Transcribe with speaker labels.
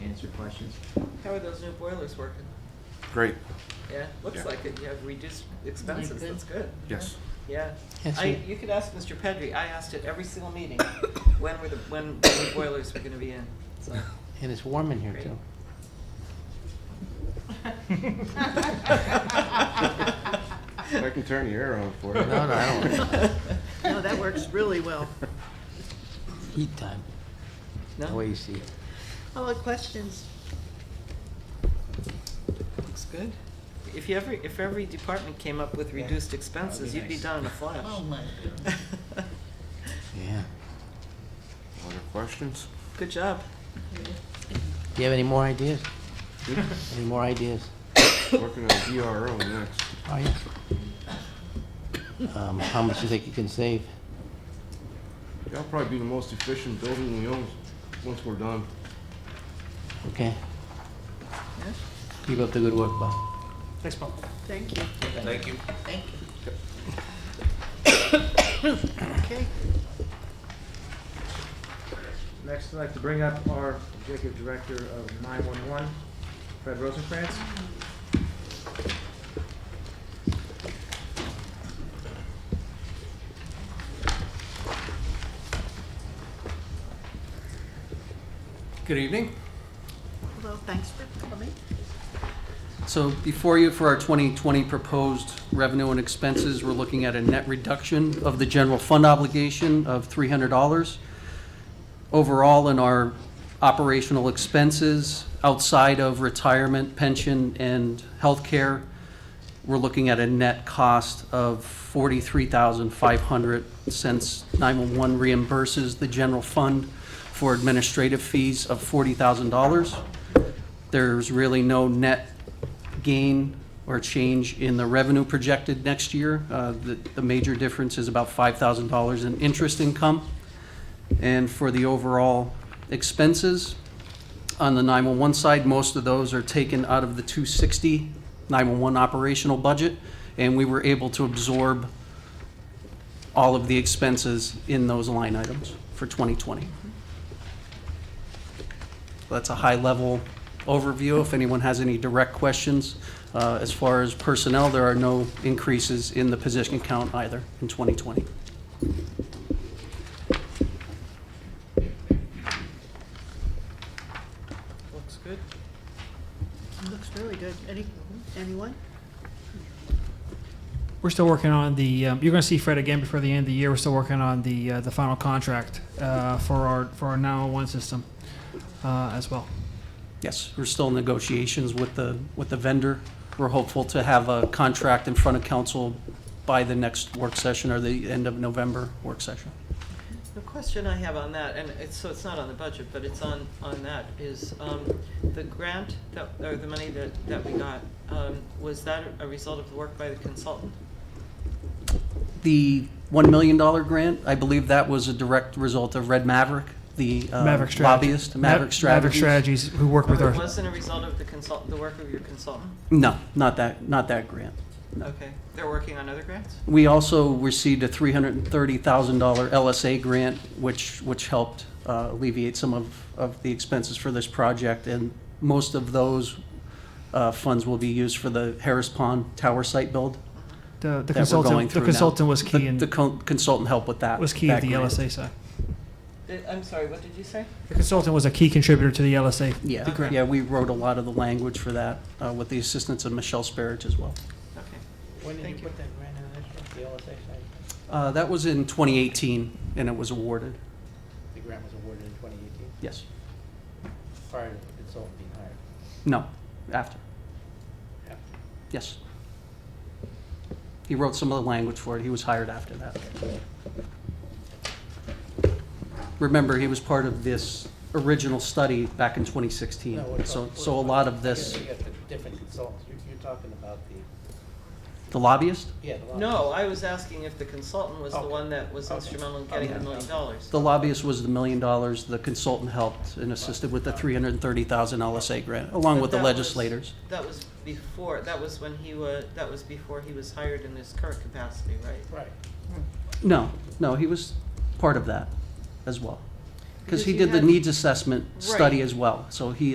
Speaker 1: answer questions.
Speaker 2: How are those new boilers working?
Speaker 3: Great,
Speaker 2: Yeah,
Speaker 3: Yeah.
Speaker 2: looks like it, you have reduced expenses,
Speaker 1: good?
Speaker 2: that's good.
Speaker 3: yes.
Speaker 2: Yeah.
Speaker 4: Yes,
Speaker 2: I,
Speaker 4: you-
Speaker 2: you could ask Mr. Pedri, I asked at every single meeting, when were the, when the new boilers were gonna be in, so.
Speaker 4: And it's warm in here
Speaker 2: Great.
Speaker 4: too.
Speaker 3: I can turn the air on for you.
Speaker 4: No, no, I don't.
Speaker 5: No, that works really well.
Speaker 4: Heat time, the way
Speaker 2: No,
Speaker 4: you see it.
Speaker 5: All the questions.
Speaker 2: looks good. If you every, if every department came up with reduced expenses, you'd be done in a flash.
Speaker 4: Yeah.
Speaker 3: Other questions?
Speaker 2: Good job.
Speaker 4: Do you have any more ideas? Any more ideas?
Speaker 3: Working on DRO next.
Speaker 4: Are you? Um, how much do you think you can save?
Speaker 3: That'll probably be the most efficient building we own once we're done.
Speaker 4: Okay. Keep up the good work, Bob.
Speaker 2: Thanks, Paul.
Speaker 5: Thank you.
Speaker 6: Thank you.
Speaker 5: Thank you. Okay.
Speaker 1: Next, I'd like to bring up our executive director of 911, Fred Rosenkrantz.
Speaker 7: Good evening.
Speaker 5: Hello, thanks for coming.
Speaker 7: So before you, for our 2020 proposed revenue and expenses, we're looking at a net reduction of the general fund obligation of $300. Overall, in our operational expenses, outside of retirement, pension, and healthcare, we're looking at a net cost of $43,500 since 911 reimburses the general fund for administrative fees of $40,000 there's really no net gain or change in the revenue projected next year. Uh, The the major difference is about $5,000 in interest income. And for the overall expenses, on the 911 side, most of those are taken out of the 260 911 operational budget, and we were able to absorb all of the expenses in those line items for 2020. That's a high-level overview. If anyone has any direct questions, uh, as far as personnel, there are no increases in the position count either in 2020.
Speaker 2: Looks good.
Speaker 5: Looks really good. Any, anyone?
Speaker 8: We're still working on the. Um, you're going to see Fred again before the end of the year. We're still working on the uh, the final contract uh, for our for our 901 system uh, as well.
Speaker 7: Yes, we're still in negotiations with the, with the vendor. We're hopeful to have a contract in front of council by the next work session or the end of November work session.
Speaker 2: The question I have on that, and it's, so it's not on the budget, but it's on, on that, is, um, the grant that, or the money that, that we got, um, was that a result of the work by the consultant?
Speaker 7: The $1 million grant, I believe that was a direct result of Red Maverick, the uh,
Speaker 8: Maverick Strategy.
Speaker 7: lobbyist,
Speaker 8: Ma-
Speaker 7: Maverick
Speaker 8: Maverick
Speaker 7: Strategies.
Speaker 8: Strategies, who work with
Speaker 2: Oh,
Speaker 8: our.
Speaker 2: It wasn't a result of the consult, the work of your consultant?
Speaker 7: No, not that, not that grant.
Speaker 2: Okay, they're working on other grants?
Speaker 7: We also received a three hundred and thirty thousand dollar LSA grant, which, which helped uh, alleviate some of, of the expenses for this project. And most of those uh, funds will be used for the Harris Pond Tower site build
Speaker 8: The, the
Speaker 7: that we're going
Speaker 8: consultant,
Speaker 7: through now.
Speaker 8: the consultant was
Speaker 7: The-
Speaker 8: key in
Speaker 7: The con- consultant helped with that.
Speaker 8: was key
Speaker 7: that
Speaker 8: at the
Speaker 7: grant.
Speaker 8: LSA side.
Speaker 2: Did- I'm sorry, what did you say?
Speaker 8: The consultant was a key contributor to the LSA.
Speaker 7: Yeah,
Speaker 8: the grant.
Speaker 7: yeah, we wrote a lot of the language for that uh, with the assistance of Michelle Sparrow as well.
Speaker 2: Okay.
Speaker 4: When
Speaker 2: did you Thank you. put
Speaker 4: that grant in, the LSA
Speaker 7: Uh, That was in twenty eighteen and it was awarded,
Speaker 4: The grant was awarded in 2018,
Speaker 7: yes.
Speaker 4: prior to the consultant being hired.
Speaker 7: No, after. Yes. He wrote some of the language for it. He was hired after that. Remember, he was part of this original study back in 2016.
Speaker 4: No, we're
Speaker 7: So,
Speaker 4: talking-
Speaker 7: so a lot of this,
Speaker 4: You got the different consultants, you're, you're talking about the,
Speaker 7: the lobbyist?
Speaker 4: yeah, the.
Speaker 2: No, I was asking if the consultant was the
Speaker 4: Okay.
Speaker 2: one that was
Speaker 4: Okay.
Speaker 2: instrumental in getting the
Speaker 7: Okay.
Speaker 2: million dollars.
Speaker 7: The lobbyist was the million dollars. The consultant helped and assisted with the 330,000 LSA grant, along
Speaker 2: But
Speaker 7: with the
Speaker 2: that was-
Speaker 7: legislators.
Speaker 2: That was before, that was when he was, that was before he was hired in his current capacity, right?
Speaker 4: Right.
Speaker 7: No, no, he was part of that as well. Because he
Speaker 2: you
Speaker 7: did the
Speaker 2: had-
Speaker 7: needs assessment study
Speaker 2: Right.
Speaker 7: as well. So he